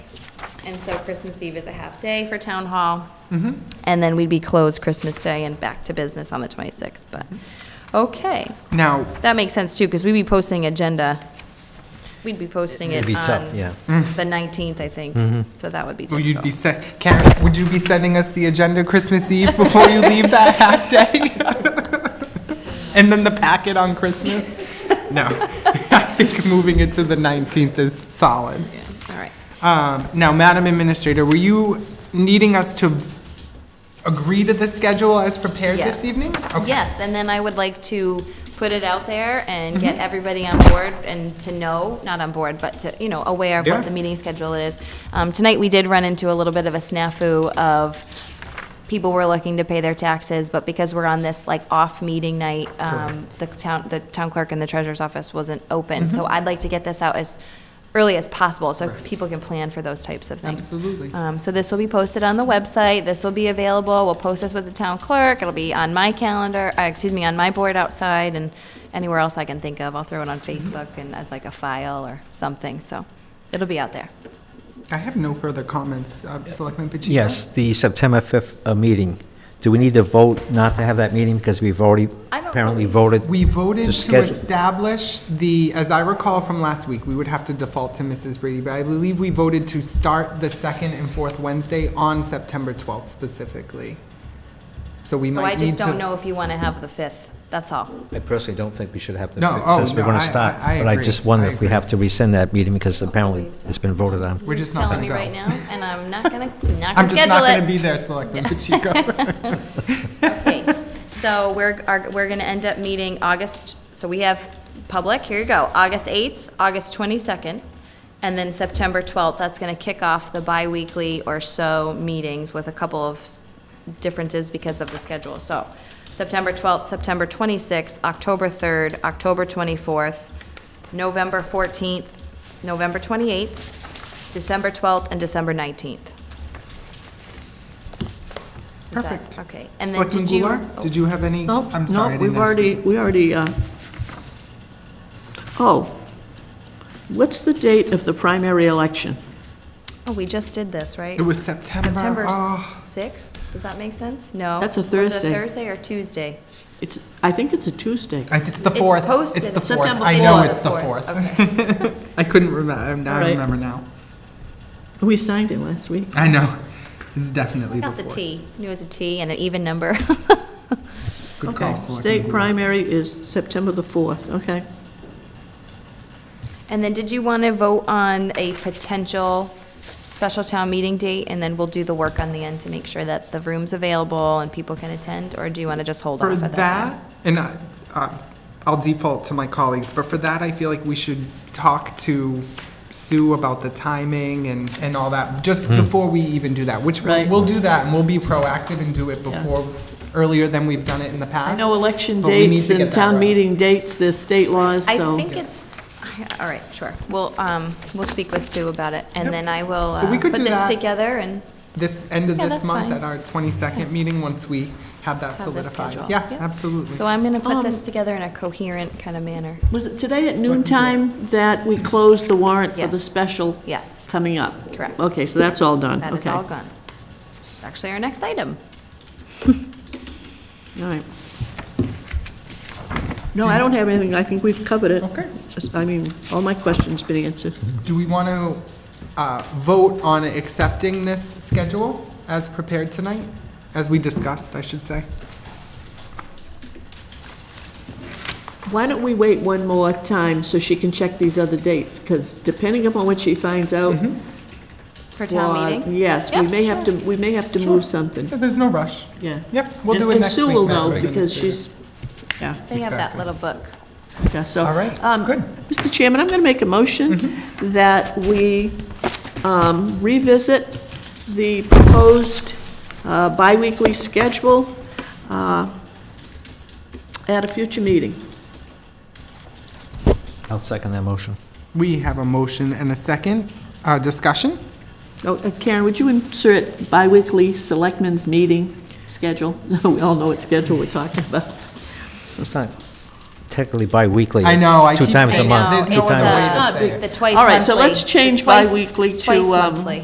And so Christmas Eve is a half day for town hall. Mm-hmm. And then we'd be closed Christmas Day and back to business on the 26th, but, Mm-hmm. okay. Now, That makes sense too, because we'd be posting agenda, we'd be posting it It'd be tough, on yeah. Mm-hmm. the 19th, I think. So that would be will you be difficult. se- Karen, would you be sending us the agenda Christmas Eve before you leave that half day? And then the packet on Christmas? No, I think moving it to the 19th is solid. Yeah, All right. Um, Now, Madam Administrator, were you needing us to agree to the schedule as prepared Yes. this evening? Okay. Yes, and then I would like to put it out there and get Mm-hmm. everybody on board and to know, not on board, but to, you know, aware of Yeah. what the meeting schedule is. Um, Tonight, we did run into a little bit of a snafu of people were looking to pay their taxes, but because we're on this like off meeting night, um, the town, the town clerk and the treasurer's office wasn't open. Mm-hmm. So I'd like to get this out as early as possible, so people can plan for those types of things. Absolutely. Um, so this will be posted on the website, this will be available, we'll post this with the town clerk, it'll be on my calendar, uh, excuse me, on my board outside and anywhere else I can think of, I'll throw it on Facebook and as like a file or something, so it'll be out there. I have no further comments. Uh, Selectman Pacheco? Yes, the September 5th uh, meeting. Do we need to vote not to have that meeting because we've already I don't apparently believe- voted? We voted To to schedule- establish the, as I recall from last week, we would have to default to Mrs. Brady, but I believe we voted to start the second and fourth Wednesday on September 12th specifically. So we So I might need just to. don't know if you wanna have the fifth, that's all. I personally don't think we should have to, No, oh, since we're no, going to I- start. I- I But I agree. just I wonder if we agree. have to rescind that meeting because apparently so. it's been voted on. We're just not Telling me gonna right go. now, and I'm not gonna, not I'm gonna schedule it. just not going to be there, Selectman Pacheco. Okay, so we're, are, we're gonna end up meeting August, so we have public, here you go, August eighth, August twenty-second, and then September twelfth, that's gonna kick off the bi-weekly or so meetings with a couple of s- differences because of the schedule, so September twelfth, September twenty-sixth, October third, October twenty-fourth, November fourteenth, November twenty-eighth, December twelfth, and December nineteenth. Perfect. Okay, and then Selectman did you? Goulart, oh. did you have any? No, I'm sorry, I no, didn't we've ask you. already, we already, uh, oh, what's the date of the primary election? Oh, we just did this, right? It was September. September oh. 6th, does that make sense? No. Ah. That's a Was it Thursday. a Thursday or Tuesday? It's, I think it's a Tuesday. I- It's the fourth. posted. It's the fourth. September I know fourth. it's the Fourth, fourth. I couldn't remember. I All right. remember now. We signed it last week. I know. It's definitely the Got the fourth. T, knew it was a T and an even number. Good Okay, call, Selectman state Goulart. primary is September the 4th, okay. And then did you want to vote on a potential special town meeting date? And then we'll do the work on the end to make sure that the room's available and people can attend? Or do you want to just hold off For at that time? that, and I, uh, I'll default to my colleagues, but for that, I feel like we should talk to Sue about the timing and, and all that, just before we even do that, which we'll, Right. we'll do that, and we'll be proactive and do it Yeah. before, earlier than we've done it in the I past. know election But we need dates to get and that town right. meeting dates, there's state laws, I so. think it's, I- all right, sure. We'll, um, we'll speak with Sue about it and then I will But we uh, could put do this that. together and, This, end of Yeah, this that's month, fine. at our twenty-second meeting, once we have that the schedule. solidified. Yeah, Yep. absolutely. so I'm going to put Um, this together in a coherent kind of manner. Was it today at noon time that we closed the warrant for the Yes. special Yes, coming up? Correct. Okay, so that's all done, that is okay. all gone. It's actually our next item. All right. No, I don't have anything, I think we've covered it. Okay. Just- I mean, all my questions been answered. Do we want to uh, vote on accepting this schedule as prepared tonight, as we discussed, I should say? Why don't we wait one more time so she can check these other dates? Because depending upon what she finds out. Mm-hmm. For town uh, meeting? Yes, we Yeah, may have to, we may have to move something, Yeah, There's no rush. yeah. Yep, we'll And- do it next week. And Sue will Madam know because Administrator. she's, yeah, They have that Exactly. little book. yeah, so. All right, um, good. Mm-hmm. Mr. Chairman, I'm going to make a motion that we um, revisit the proposed uh, biweekly schedule uh, at a future meeting. I'll second that motion. We have a motion and a second. Uh, Discussion? Oh, uh, Karen, would you insert biweekly selectmen's meeting schedule? We all know what schedule we're talking about. It's not technically bi-weekly. I it's know, I Two keep times a saying month. that. There's two no other times- way to Not say big. it. uh, The twice monthly. All right, so let's the change twice- biweekly to, Twice um, monthly.